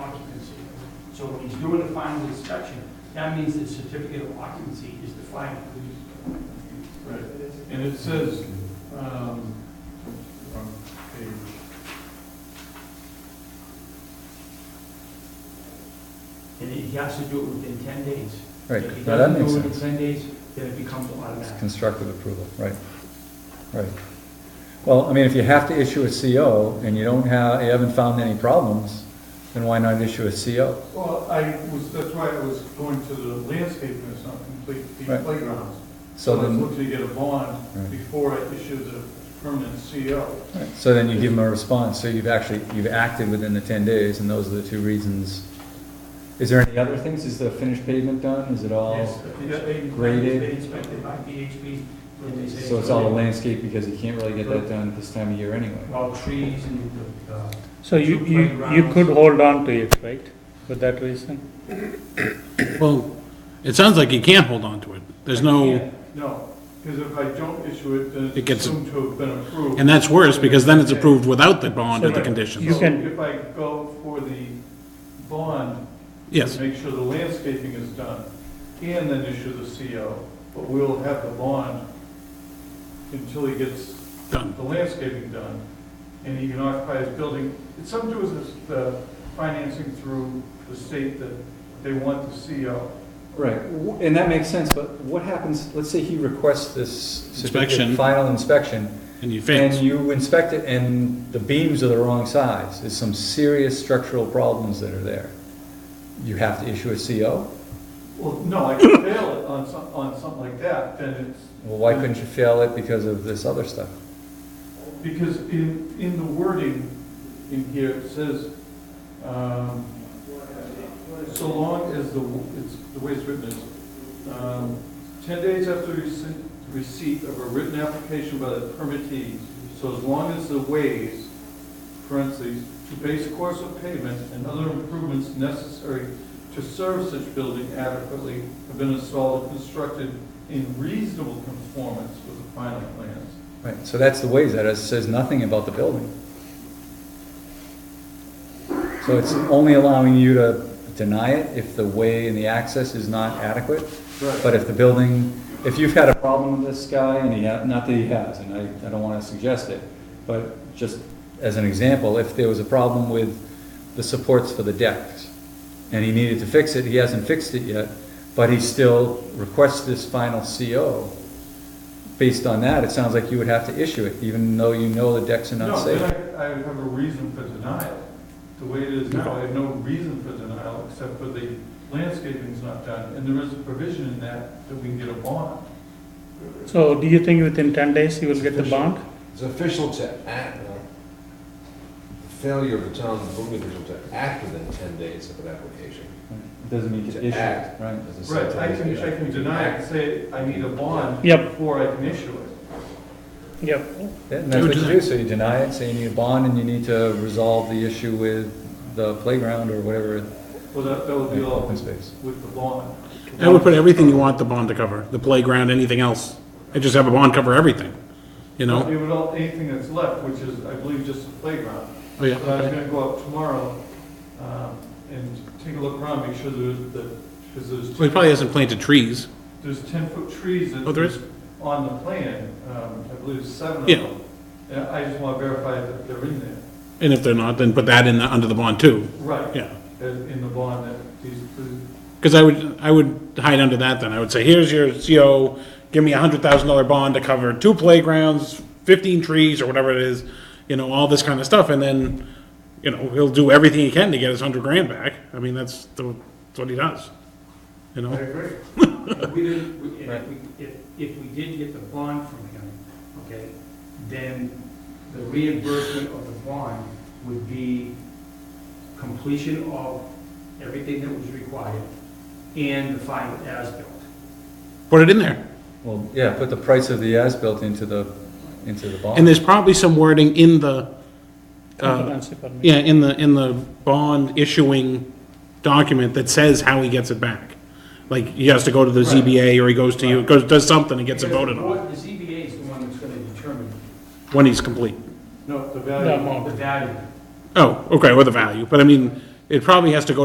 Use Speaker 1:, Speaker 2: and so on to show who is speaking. Speaker 1: doing the final inspection, that means the certificate of occupancy is the final.
Speaker 2: Right, and it says, um, wrong page,
Speaker 1: And he has to do it within ten days.
Speaker 3: Right,
Speaker 1: If he
Speaker 3: now that
Speaker 1: doesn't
Speaker 3: makes
Speaker 1: do it in
Speaker 3: sense.
Speaker 1: ten days, then it becomes
Speaker 3: It's
Speaker 1: automatic.
Speaker 3: constructive approval, right, right. Well, I mean, if you have to issue a CO and you don't have, you haven't found any problems, then why not issue a CO?
Speaker 2: well, I was, that's why I was going to the landscaping, it's not complete, the
Speaker 3: Right.
Speaker 2: playgrounds.
Speaker 3: So
Speaker 2: I was
Speaker 3: then,
Speaker 2: looking to get a bond
Speaker 3: Right.
Speaker 2: before I issue the permanent CO.
Speaker 3: right, so then you give them a response, so you've actually, you've acted within the ten days, and those are the two reasons. Is there any other things, is the finished pavement done, is it
Speaker 1: Yes,
Speaker 3: all,
Speaker 1: it's-
Speaker 2: Yeah.
Speaker 3: graded.
Speaker 1: It's been inspected by VHB, and they say.
Speaker 3: so it's all landscape, because you can't really get that done at this time of year anyway?
Speaker 1: All trees and the, uh,
Speaker 4: So you,
Speaker 1: Two
Speaker 4: you, you
Speaker 1: playgrounds.
Speaker 4: could hold on to it, right, for that reason?
Speaker 5: Well, it sounds like you can't hold on to it. There's no,
Speaker 2: No, because if I don't issue it, then
Speaker 5: It
Speaker 2: it's
Speaker 5: gets-
Speaker 2: assumed to have been approved.
Speaker 5: and that's worse, because then it's approved without the bond and the
Speaker 4: You
Speaker 5: conditions.
Speaker 2: So
Speaker 4: can-
Speaker 2: If I go for the bond,
Speaker 5: Yes,
Speaker 2: Make sure the landscaping is done, and then issue the CO, but we'll have the bond until he gets
Speaker 5: done.
Speaker 2: the landscaping done, and he can occupy his building. It's something to do with this, uh, financing through the state that they want the CO.
Speaker 3: Right, w- and that makes sense, but what happens, let's say he requests this certificate,
Speaker 5: Inspection.
Speaker 3: final inspection,
Speaker 5: And you
Speaker 3: and
Speaker 5: fail.
Speaker 3: you inspect it, and the beams are the wrong size, there's some serious structural problems that are there. You have to issue a CO?
Speaker 2: Well, no, I can fail it on some, on something like that, then it's.
Speaker 3: Well, why couldn't you fail it because of this other stuff?
Speaker 2: Because in, in the wording in here, it says, um, so long as the, it's, the way it's written is, um, ten days after receipt, receipt of a written application by the permittee, so as long as the ways, parentheses, to base course of pavement and other improvements necessary to serve such building adequately have been installed and constructed in reasonable conformance with the final plans.
Speaker 3: Right, so that's the ways, that it says nothing about the building. So it's only allowing you to deny it if the way and the access is not adequate?
Speaker 2: Right.
Speaker 3: But if the building, if you've had a problem with this guy, and he, ha- not that he has, and I, I don't wanna suggest it, but just as an example, if there was a problem with the supports for the decks, and he needed to fix it, he hasn't fixed it yet, but he still requests this final CO, based on that, it sounds like you would have to issue it, even though you know the decks are not
Speaker 2: No,
Speaker 3: safe.
Speaker 2: then I I have a reason for denial. The way it is now, I have no reason for denial except for the landscaping's not done. And there is a provision in that that we can get a bond.
Speaker 4: So do you think within ten days you will get the bond?
Speaker 6: It's official to act, uh, failure of the town building official to act within 10 days of an application.
Speaker 3: It Doesn't mean you can
Speaker 6: To
Speaker 3: issue it,
Speaker 6: act.
Speaker 3: right?
Speaker 6: Doesn't say
Speaker 2: Right, I
Speaker 6: 10
Speaker 2: can,
Speaker 6: days.
Speaker 2: I can deny it and say I need a bond
Speaker 4: Yep.
Speaker 2: before I can issue it.
Speaker 4: Yep.
Speaker 3: Yeah, And that's
Speaker 5: You
Speaker 3: what you
Speaker 5: deny-
Speaker 3: do, so you deny it, say you need a bond, and you need to resolve the issue with the playground or whatever,
Speaker 2: Well, that, that would be all
Speaker 3: open
Speaker 2: with
Speaker 3: space.
Speaker 2: the bond.
Speaker 5: I would put everything you want the bond to cover, the playground, anything else. I just have a bond cover everything, you know?
Speaker 2: It would all, anything that's left, which is, I believe, just the playground.
Speaker 5: Oh, yeah,
Speaker 2: But I'm
Speaker 5: okay.
Speaker 2: gonna go up tomorrow, um, and take a look around, make sure there's, that, because there's.
Speaker 5: Well, he probably hasn't planted trees.
Speaker 2: There's 10-foot trees that.
Speaker 5: Oh, there is?
Speaker 2: On the plan, um, I believe there's seven of
Speaker 5: Yeah.
Speaker 2: them. And I just want to verify that they're in there.
Speaker 5: And if they're not, then put that in, the- under the bond too,
Speaker 2: Right.
Speaker 5: yeah.
Speaker 2: In in the bond that these,
Speaker 5: Because I would, I would hide under that then. I would say, here's your CO, give me a hundred thousand dollar bond to cover two playgrounds, fifteen trees, or whatever it is, you know, all this kind of stuff, and then, you know, he'll do everything he can to get his hundred grand back. I mean, that's the, that's what he does, you
Speaker 2: I
Speaker 5: know?
Speaker 2: agree.
Speaker 1: If we didn't, we- if we, if, if we did get the bond from him, okay, then the reimbursement of the bond would be completion of everything that was required and the final as-built.
Speaker 5: Put it in there.
Speaker 3: Well, yeah, put the price of the as-built into the, into the
Speaker 5: And
Speaker 3: bond.
Speaker 5: there's probably some wording in the, uh,
Speaker 4: Comprehensive permit.
Speaker 5: yeah, in the, in the bond issuing document that says how he gets it back. Like, he has to go to the
Speaker 1: Right.
Speaker 5: ZBA, or he goes to you, goes, does something and gets it
Speaker 1: Because
Speaker 5: voted
Speaker 1: the
Speaker 5: on,
Speaker 1: board- The ZBA is the one that's gonna determine
Speaker 5: when he's complete.
Speaker 2: No, the
Speaker 4: The
Speaker 2: value.
Speaker 4: amount.
Speaker 1: the value.
Speaker 5: Oh, okay, or the value, but I mean, it probably has to go